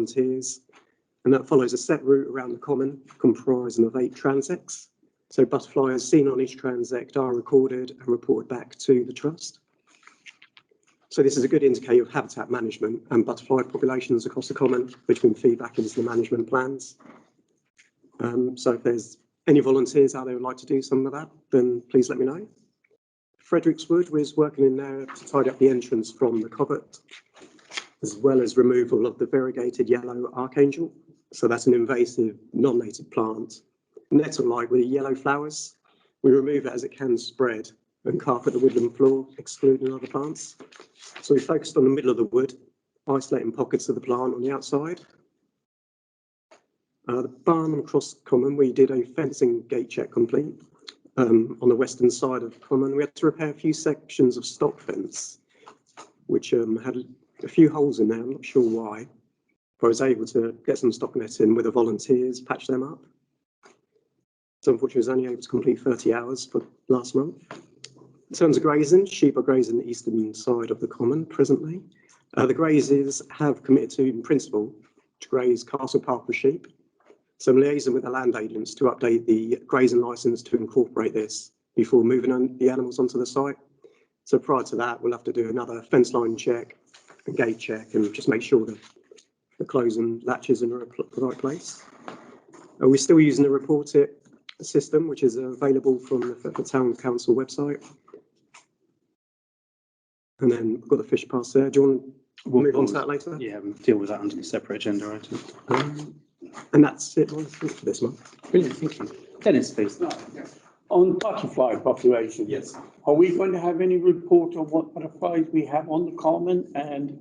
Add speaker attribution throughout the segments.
Speaker 1: volunteers, and that follows a set route around the common comprising of eight transects. So butterflies seen on each transect are recorded and reported back to the trust. So this is a good indicator of habitat management and butterfly populations across the common, which can feed back into the management plans. Um, so if there's any volunteers out there who'd like to do some of that, then please let me know. Fredericks Wood was working in there to tidy up the entrance from the covert as well as removal of the variegated yellow archangel. So that's an invasive, non-native plant. Nettle-like with yellow flowers. We remove it as it can spread and carpet the woodland floor, excluding other plants. So we focused on the middle of the wood, isolating pockets of the plant on the outside. Uh, the barn across common, we did a fencing gate check complete um, on the western side of common. We had to repair a few sections of stock fence, which um, had a few holes in there, I'm not sure why. But I was able to get some stock netting with the volunteers, patch them up. So unfortunately, I was only able to complete 30 hours for last month. In terms of grazing, sheep are grazing the eastern side of the common presently. Uh, the grazers have committed to, in principle, to graze Castle Park with sheep. So I'm liaising with the land agents to update the grazing license to incorporate this before moving on the animals onto the site. So prior to that, we'll have to do another fence line check a gate check and just make sure that the closing latches are in the pl- the right place. Uh, We're still using the report it system, which is available from the Thetford Town Council website. And then we've got the fish pass there. Do you want to
Speaker 2: We'll
Speaker 1: move on to
Speaker 2: pause.
Speaker 1: that later?
Speaker 2: Yeah, we'll deal with that under the separate agenda item.
Speaker 1: Um, And that's it I think, for this month.
Speaker 2: Brilliant, thank you. Dennis, please.
Speaker 3: On butterfly population?
Speaker 2: Yes.
Speaker 3: Are we going to have any report on what butterflies we have on the common and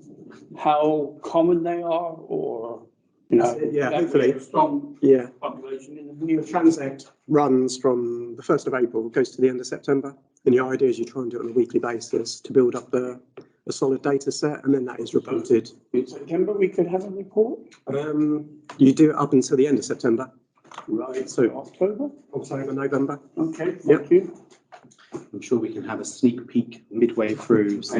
Speaker 3: how common they are or, you know?
Speaker 1: Yeah,
Speaker 3: that we
Speaker 1: hopefully.
Speaker 3: have Strong
Speaker 1: Yeah.
Speaker 3: population in the
Speaker 1: The
Speaker 3: near
Speaker 1: transect runs from the 1st of April, goes to the end of September. And the idea is you try and do it on a weekly basis to build up a, a solid data set and then that is reported
Speaker 3: In September, we could have a report?
Speaker 1: Um, you do it up until the end of September,
Speaker 3: Right.
Speaker 1: So-
Speaker 3: October?
Speaker 1: October, November.
Speaker 3: Okay,
Speaker 1: Yep.
Speaker 3: thank you.
Speaker 2: I'm sure we can have a sneak peek midway through. So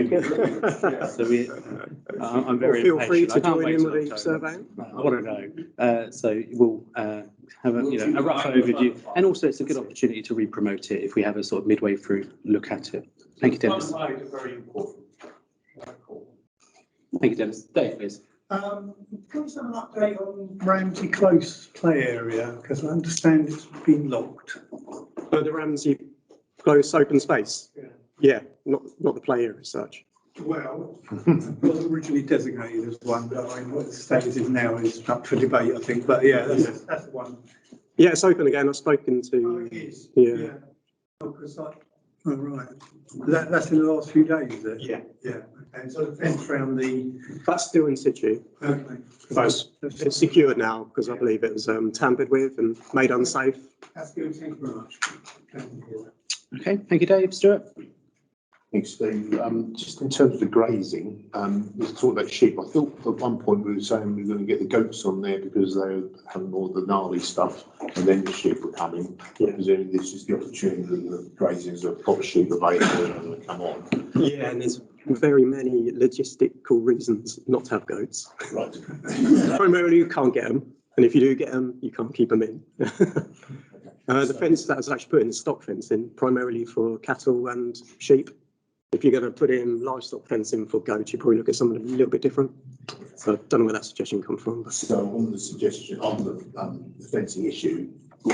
Speaker 2: so we, I- I'm very
Speaker 1: Feel free
Speaker 2: impatient.
Speaker 1: to
Speaker 2: I can't
Speaker 1: join
Speaker 2: wait
Speaker 1: in
Speaker 2: till
Speaker 1: with the
Speaker 2: October.
Speaker 1: survey.
Speaker 2: I want to know. Uh, So we'll uh, have a, you know, a rough overview. And also it's a good opportunity to re-promote it if we have a sort of midway through look at it. Thank you, Dennis.
Speaker 3: Butterflies are very important.
Speaker 2: Thank you, Dennis. Dave, please.
Speaker 4: Um, Can we have an update on Ramsey Close play area? Because I understand it's been locked.
Speaker 1: Uh, the Ramsey close open space.
Speaker 4: Yeah.
Speaker 1: Yeah, not, not the play area as such.
Speaker 4: Well, it was originally designated as one, but I mean, what the status is now is up for debate, I think, but yeah, that's, that's the one. Oh,
Speaker 1: Yeah, it's open again. I've spoken to,
Speaker 4: is?
Speaker 1: Yeah.
Speaker 4: Because I, oh, right, that, that's in the last few days, is it?
Speaker 1: yeah,
Speaker 4: Yeah, and so the fence around the,
Speaker 1: that's still in situ.
Speaker 4: okay.
Speaker 1: That's- It's secured now because I believe it was um, tampered with and made unsafe.
Speaker 4: That's good, thank you very much. Thank you.
Speaker 2: Okay, thank you, Dave. Stuart?
Speaker 5: Thanks, Steve. Um, Just in terms of the grazing, um, we talked about sheep. I thought at one point we were saying we were going to get the goats on there because they were having all the gnarly stuff and then the sheep were coming.
Speaker 1: Yeah.
Speaker 5: Presumably this is the opportunity that grazing is a proper sheep available and they come on.
Speaker 1: Yeah, and there's very many logistical reasons not to have goats.
Speaker 5: Right.
Speaker 1: Primarily, you can't get them, and if you do get them, you can't keep them in. Uh, the fence that was actually put in is stock fencing, primarily for cattle and sheep. If you're going to put in livestock fencing for goats, you probably look at something a little bit different. So I don't know where that suggestion come from, but
Speaker 5: So on the suggestion, on the um, the fencing issue,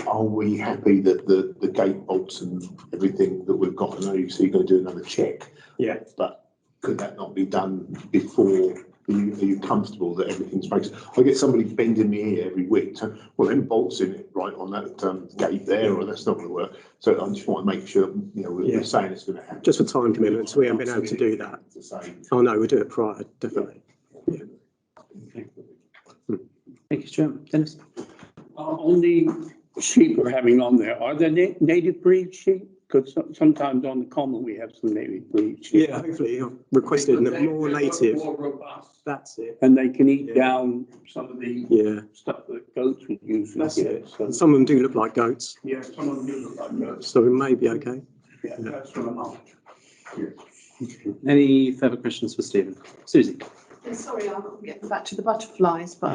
Speaker 5: are we happy that the, the gate bolts and everything that we've got? I know you say you're going to do another check.
Speaker 1: yeah.
Speaker 5: But could that not be done before? Are you, are you comfortable that everything's fixed? I get somebody bending me here every week, so, well, then bolts in it right on that um, gate there, or that's not gonna work. So I just want to make sure, you know, we're-
Speaker 1: Yeah.
Speaker 5: we're saying it's gonna happen.
Speaker 1: Just for time commitments, we haven't been able to do that.
Speaker 5: To say,
Speaker 1: Oh no, we do it prior, definitely.
Speaker 2: Thank you, Stuart. Dennis?
Speaker 3: Uh, On the sheep we're having on there, are there na- native breed sheep? Because sometimes on the common, we have some native breed sheep.
Speaker 1: Yeah, hopefully I've requested a more native.
Speaker 3: More robust.
Speaker 1: That's it.
Speaker 3: And they can eat
Speaker 1: Yeah.
Speaker 3: down some of the
Speaker 1: Yeah,
Speaker 3: stuff that goats would usually
Speaker 1: That's
Speaker 3: get.
Speaker 1: and
Speaker 3: So,
Speaker 1: some of them do look like goats,
Speaker 3: yeah, some of them do look like goats.
Speaker 1: so we may be okay.
Speaker 3: Yeah, that's what I'm after.
Speaker 2: Any further questions for Stephen? Susie?
Speaker 6: I'm Sorry, I'm getting back to the butterflies, but